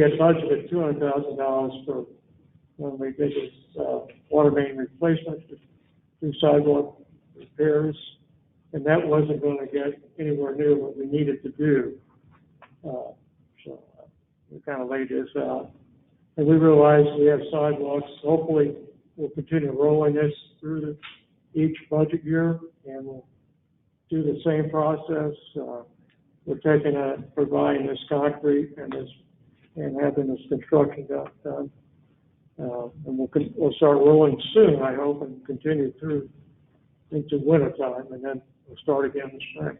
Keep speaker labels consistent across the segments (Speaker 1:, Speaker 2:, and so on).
Speaker 1: We had budgeted two hundred thousand dollars for when we did this, uh, water main replacement, do sidewalk repairs, and that wasn't gonna get anywhere near what we needed to do. Uh, so, uh, we kinda laid this out. And we realized we have sidewalks, hopefully we'll continue rolling this through the, each budget year, and we'll do the same process, uh, we're taking a, providing this concrete and this, and having this construction done- done. Uh, and we'll, con- we'll start rolling soon, I hope, and continue through into winter time, and then we'll start again in spring.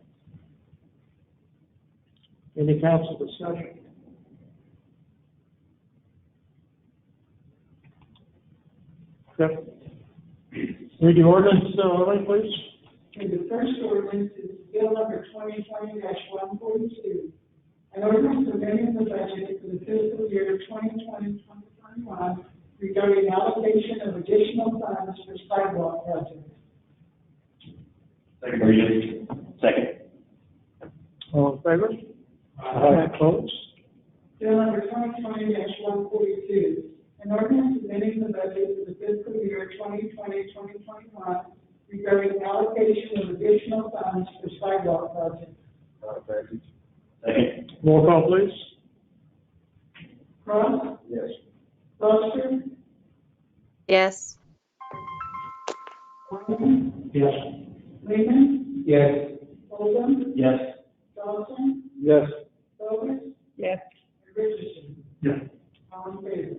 Speaker 1: Any council discussion? Yep. Read the ordinance, uh, Elaine, please.
Speaker 2: Okay, the first ordinance is bill number twenty twenty one forty-two. An ordinance amending the budget for the fiscal year 2020-2021 regarding allocation of additional funds for sidewalk projects.
Speaker 3: Second reading. Second.
Speaker 1: All in favor? Aye. Opposed?
Speaker 2: Bill number twenty twenty one forty-two, an ordinance amending the budget for the fiscal year 2020-2021 regarding allocation of additional funds for sidewalk projects.
Speaker 3: Second.
Speaker 1: Roll call, please.
Speaker 2: Cross,
Speaker 3: Yes.
Speaker 2: Foster,
Speaker 4: yes,
Speaker 2: Wyman,
Speaker 3: Yes.
Speaker 2: Lehman,
Speaker 3: Yes.
Speaker 2: Oldham,
Speaker 3: Yes.
Speaker 2: Johnson,
Speaker 3: Yes.
Speaker 2: Bogus,
Speaker 5: yes,
Speaker 2: and Richardson,
Speaker 3: Yes.
Speaker 2: all in favor.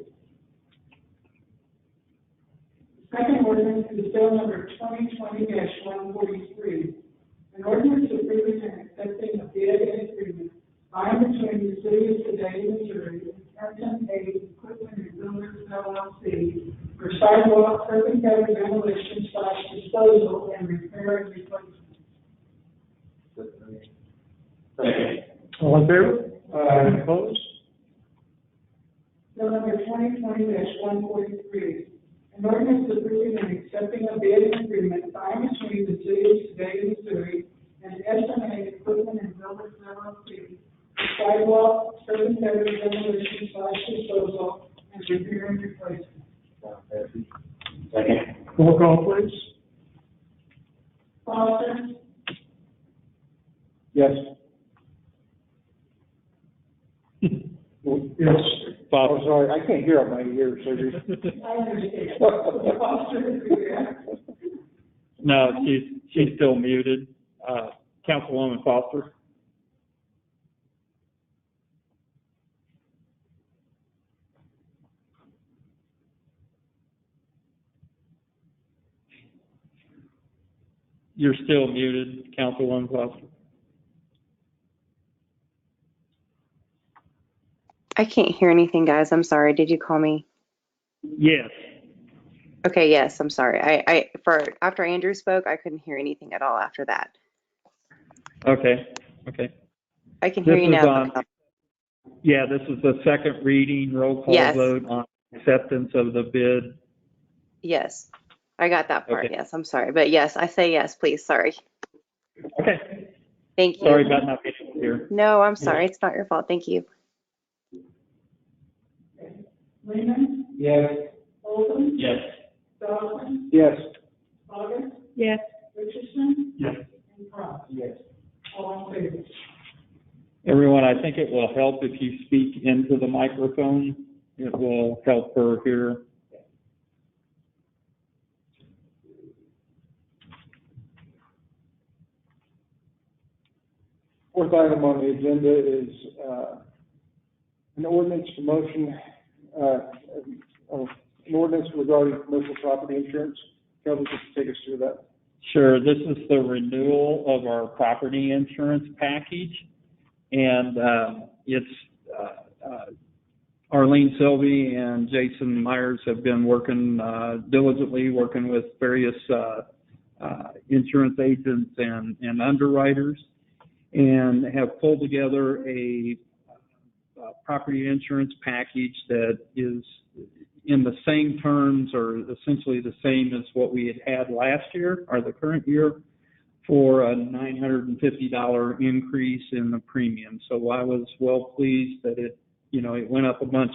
Speaker 2: Second ordinance is bill number twenty twenty one forty-three. An ordinance approving and accepting a bid and agreement signed between the city of Sedalia, Missouri, and Captain A Equipment and Builders LLC for sidewalk curb and gutter demolition slash disposal and repair and replacement.
Speaker 3: Second.
Speaker 1: All in favor? Aye. Opposed?
Speaker 2: Bill number twenty twenty one forty-three, an ordinance approving and accepting a bid and agreement signed between the city of Sedalia, Missouri, and SMA Equipment and Builders LLC, for sidewalk, certain better demolition slash disposal, and repair and replacement.
Speaker 3: Second.
Speaker 1: Roll call, please.
Speaker 2: Foster,
Speaker 1: Yes. Yes.
Speaker 6: Bob,
Speaker 7: Oh,
Speaker 6: I'm sorry, I can't hear on my ears, so you're.
Speaker 2: I understand. Foster, yeah.
Speaker 6: No, she's, she's still muted. Uh, Councilwoman Foster? You're still muted, Councilwoman Foster.
Speaker 4: I can't hear anything, guys, I'm sorry, did you call me?
Speaker 6: Yes.
Speaker 4: Okay, yes, I'm sorry, I, I, for, after Andrew spoke, I couldn't hear anything at all after that.
Speaker 6: Okay, okay.
Speaker 4: I can hear
Speaker 6: This
Speaker 4: you
Speaker 6: is
Speaker 4: now. um,
Speaker 6: on- Yeah, this is the second reading, roll call
Speaker 4: Yes.
Speaker 6: vote on acceptance of the bid.
Speaker 4: Yes, I got that part,
Speaker 6: Okay.
Speaker 4: yes, I'm sorry, but yes, I say yes, please, sorry,
Speaker 6: Okay,
Speaker 4: thank you.
Speaker 6: sorry about not being able to hear.
Speaker 4: No, I'm sorry, it's not your fault, thank you.
Speaker 2: Lehman,
Speaker 3: Yes.
Speaker 2: Oldham,
Speaker 3: Yes.
Speaker 2: Dawson,
Speaker 3: Yes.
Speaker 2: Bogus,
Speaker 5: yes.
Speaker 2: Richardson,
Speaker 3: Yes.
Speaker 2: and Cross,
Speaker 3: Yes.
Speaker 2: all in favor.
Speaker 6: Everyone, I think it will help if you speak into the microphone. It will help her hear.
Speaker 7: Fourth item on the agenda is, uh, an ordinance promotion, uh, of, an ordinance regarding commercial property insurance. Kelly, just take us through that.
Speaker 6: Sure, this is the renewal of our property insurance package. And, uh, it's, uh, uh, Arlene Sylvie and Jason Myers have been working, uh, diligently, working with various, uh, uh, insurance agents and, and underwriters. And have pulled together a, uh, property insurance package that is in the same terms or essentially the same as what we had had last year or the current year for a $950 increase in the premium. So I was well pleased that it you know, it went up a bunch